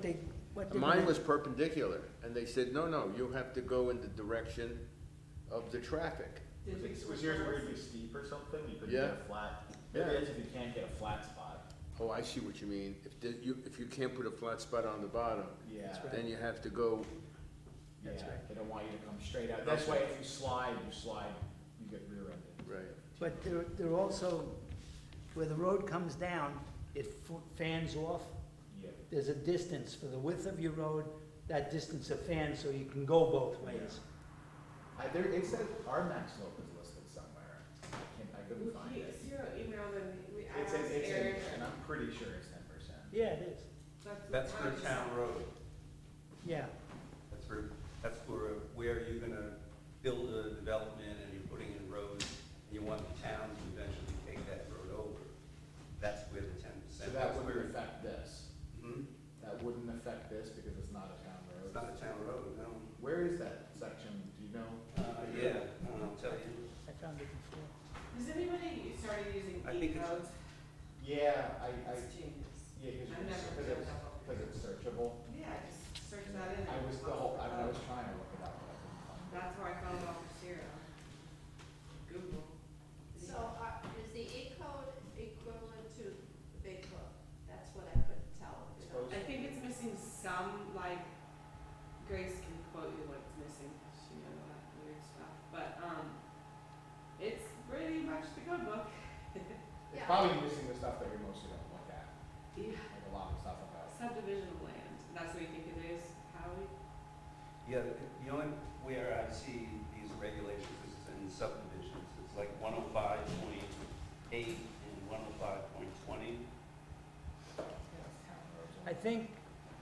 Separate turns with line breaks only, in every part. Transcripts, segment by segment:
they, what they.
Mine was perpendicular, and they said, no, no, you have to go in the direction of the traffic.
I think it was yours where it'd be steep or something, you couldn't
Yeah.
get a flat, maybe
Yeah.
that's if you can't get a flat spot.
Oh, I see what you mean. If the, you, if you can't put a flat spot on the bottom,
Yeah.
That's right.
then you have to go,
Yeah,
That's right.
they don't want you to come straight out, that's why if you slide, you slide, you get rear-ended.
right,
But they're, they're also, where the road comes down, it f- fans off.
Yeah,
There's a distance for the width of your road, that distance of fans, so you can go both ways.
I, there, it said our max slope is listed somewhere, I can't, I couldn't
Well,
find
he-
it.
Cyril emailed and we, I
It's
asked
in, it's
Eric.
in, and I'm pretty sure it's ten percent.
Yeah, it is.
That's for
what I
town road,
Yeah,
that's for, that's for where you're gonna build a development and you're putting in roads, and you want the town to eventually take that road over. That's where the ten
So
percent,
that
that's
wouldn't
where,
affect this,
Mhm.
that wouldn't affect this because it's not a town road.
it's not a town road, no.
Where is that section, do you know?
Uh, yeah, I'll tell you,
I found it before.
Has anybody started using
I
e
think it's-
codes?
Yeah, I, I,
It's genius.
yeah, cause
I've never
it's, cause
built
it's,
that up.
cause it's searchable.
Yeah, just search that Uh, in.
I was, the
Lots
whole, I
of
mean, I was
codes.
trying to look it up, but I couldn't find it.
That's where I found out for Cyril. Google.
So are, is the E code equivalent to the big book? That's what I couldn't tell.
It's supposed
I think it's missing some, like, Grace can quote you what's missing, 'cause she knows all that weird stuff, but, um, it's pretty much the code book.
It's
Yeah.
probably missing the stuff that we mostly don't look at,
Yeah.
like a lot of stuff about.
Subdivision of land, that's what you think it is, Howie?
yeah, the- the only, where I see these regulations is in subdivisions, it's like one oh five point eight and one oh five point twenty.
I think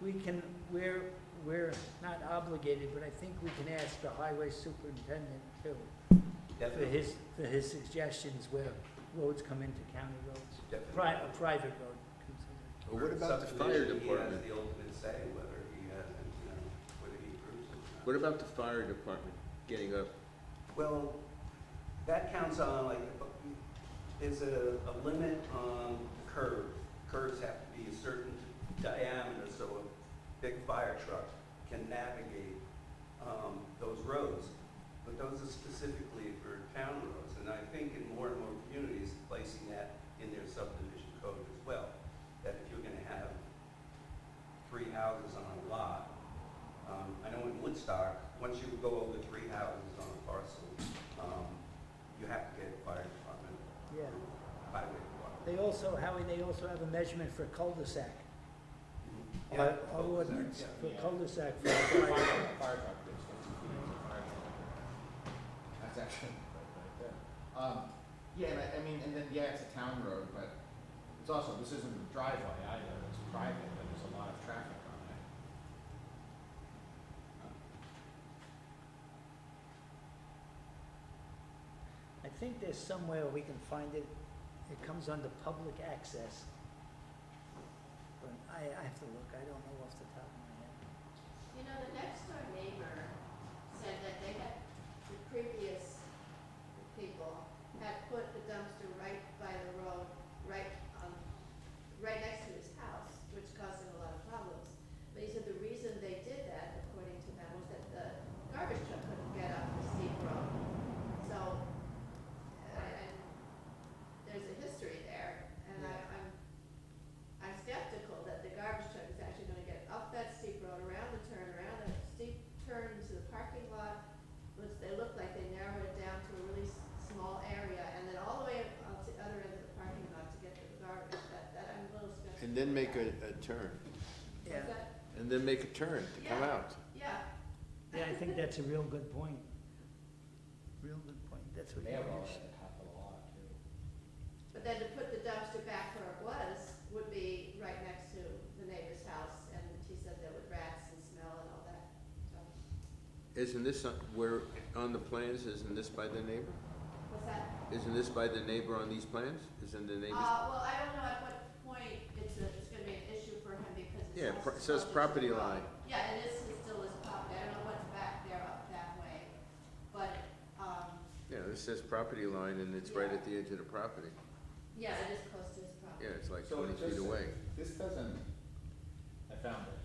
we can, we're, we're not obligated, but I think we can ask the highway superintendent too, for
Definitely,
his, for his suggestions where roads come into county roads.
definitely.
Pri- a private road comes in.
But what about the fire
Subdivision,
department?
He has the ultimate say whether he has, you know, whether he approves it or not.
What about the fire department getting up?
Well, that counts on like, there's a, a limit on curve. Curves have to be a certain diameter, so a big fire truck can navigate, um, those roads. But those are specifically for town roads, and I think in more and more communities, placing that in their subdivision code as well. That if you're gonna have three houses on a lot, um, I know in Woodstock, once you go over three houses on a parcel, um, you have to get fire department,
Yeah,
highway department.
they also, Howie, they also have a measurement for cul-de-sac.
Yeah,
Our
cul-de-sac,
our ordinance
yeah.
for
Yeah.
cul-de-sac. for
Fire
fire.
truck, fire truck, there's fifty feet of fire truck. That's actually right right there. Um, yeah, and I, I mean, and then, yeah, it's a town road, but it's also, this isn't a driveway either, it's private, but there's a lot of traffic on it.
I think there's somewhere we can find it. It comes under public access. But I, I have to look, I don't know off the top of my head.
You know, the next door neighbor said that they had, the previous people had put the dumpster right by the road, right on, right next to his house, which caused him a lot of problems. But he said the reason they did that, according to them, was that the garbage truck couldn't get up the steep road. So, and there's a history there, and I, I'm I'm skeptical that the garbage truck is actually gonna get up that steep road, around the turn, around that steep turn to the parking lot, which they look like they narrowed it down to a really s- small area, and then all the way up to the other end of the parking lot to get to the garbage, that, that I'm a little skeptical.
And then make a,
about.
a turn,
Was
Yeah,
that-
and then make a turn to come
Yeah.
out.
Yeah,
yeah, I think that's a real good point. Real good point, that's what
They
you
have all
mentioned.
that happen a lot too.
but then to put the dumpster back where it was would be right next to the neighbor's house, and he said there were rats and smell and all that, so,
Isn't this, on- where, on the plans, isn't this by the neighbor?
what's that?
Isn't this by the neighbor on these plans? Isn't the neighbor's?
Uh, well, I don't know at what point it's a, it's gonna be an issue for him because it's.
Yeah,
also
pro- it says
closer
property
to the road.
line.
Yeah, it is, it's still his property, I don't know what's back there up that way, but, um,
Yeah, this says property line and it's right at the edge of the property.
yeah, it is close to his property.
Yeah, it's like
So
twenty
it just-
feet away.
This doesn't. I found it.